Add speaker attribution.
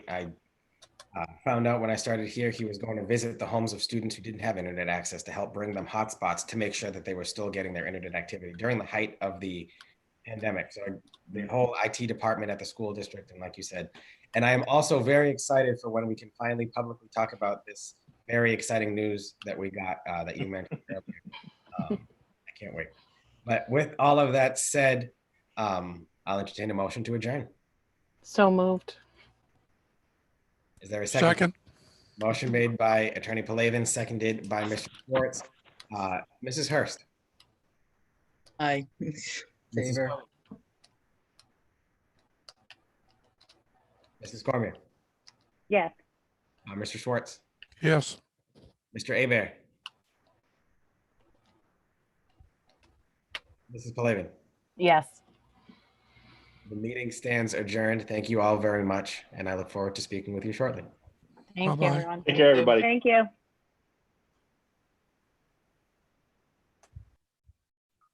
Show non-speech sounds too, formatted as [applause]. Speaker 1: I uh, found out when I started here, he was going to visit the homes of students who didn't have internet access to help bring them hotspots to make sure that they were still getting their internet activity during the height of the pandemic. So the whole IT department at the school district, and like you said, and I am also very excited for when we can finally publicly talk about this very exciting news that we got uh, that you mentioned earlier. Um, I can't wait. But with all of that said, um, I'll entertain a motion to adjourn.
Speaker 2: So moved.
Speaker 1: Is there a second?
Speaker 3: Second,
Speaker 1: Motion made by Attorney Palavin, seconded by Mr. Schwartz. Uh, Mrs. Hurst.
Speaker 4: Aye. [laughs]
Speaker 1: Mrs.
Speaker 4: Favor.
Speaker 1: Cormier, Mrs. Cormier,
Speaker 2: Yes.
Speaker 1: uh, Mr. Schwartz,
Speaker 3: yes.
Speaker 1: Mr. Abear. Mrs. Palavin,
Speaker 2: Yes.
Speaker 1: the meeting stands adjourned. Thank you all very much, and I look forward to speaking with you shortly.
Speaker 2: Thank you,
Speaker 3: Bye-bye.
Speaker 2: everyone.
Speaker 5: Take care, everybody.
Speaker 2: Thank you.